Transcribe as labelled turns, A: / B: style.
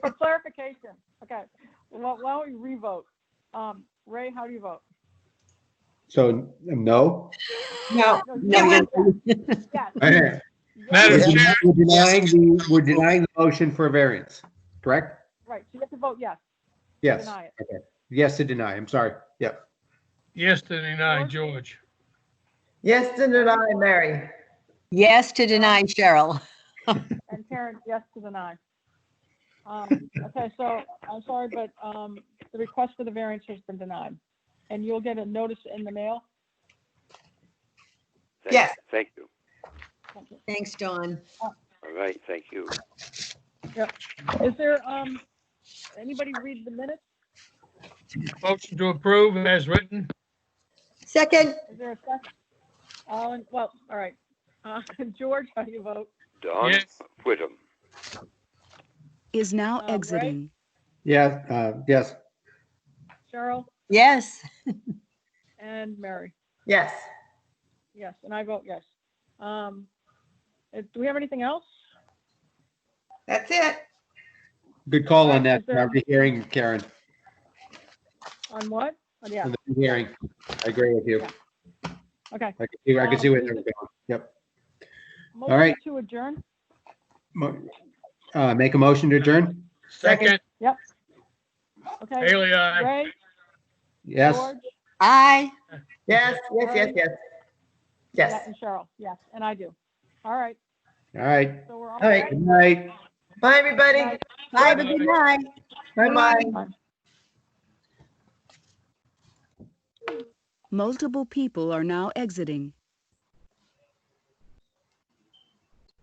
A: For clarification, okay, why why don't we revote? Um, Ray, how do you vote?
B: So,
C: No,
B: no?
A: No,
C: no,
A: yes, yes, yes,
B: We're
A: yes.
D: Madam Chair.
B: denying the, we're denying the motion for a variance, correct?
A: Right, so you have to vote yes, to
B: Yes,
A: deny it.
B: yes to deny, I'm sorry, yep.
D: Yes to deny, George.
E: Yes to deny, Mary.
F: Yes to deny Cheryl.
A: And Karen, yes to deny. Um, okay, so I'm sorry, but, um, the request for the variance has been denied. And you'll get a notice in the mail.
G: Thank-
C: Yes.
G: Thank you.
A: Thank you.
F: Thanks, John.
G: All right, thank you.
A: Is there, um, anybody read the minutes?
D: Motion to approve as written.
F: Second,
A: Is there a second? All, in- well, all right. Uh, George, how do you vote?
G: Don
D: Yes.
G: Whittam.
H: is now
A: Uh, Ray?
H: exiting.
B: Yeah, uh, yes,
A: Cheryl
F: yes.
A: and Mary?
E: Yes.
A: Yes, and I vote yes. Um, uh, do we have anything else?
C: that's it.
B: good call on
A: Alright,
B: that,
A: is there-
B: hearing, Karen,
A: On what? Oh, Yeah,
B: on the hearing, I agree with you,
A: Yeah. okay.
B: I can see, I can see where they're going, yep. right.
A: Motion To adjourn?
B: Mo- Uh, make a motion to adjourn,
D: Second,
A: Okay.
D: Haley, aye.
A: Ray,
B: yes?
A: George,
F: Aye.
E: Yes, yes, yes, yes.
A: yeah,
E: Yes.
A: and Cheryl, yes, and I do. All right,
B: All right,
A: so we're all.
E: All right.
B: good night.
E: Bye, everybody.
F: Bye, have a good night.
E: Bye-bye.
H: Multiple people are now exiting.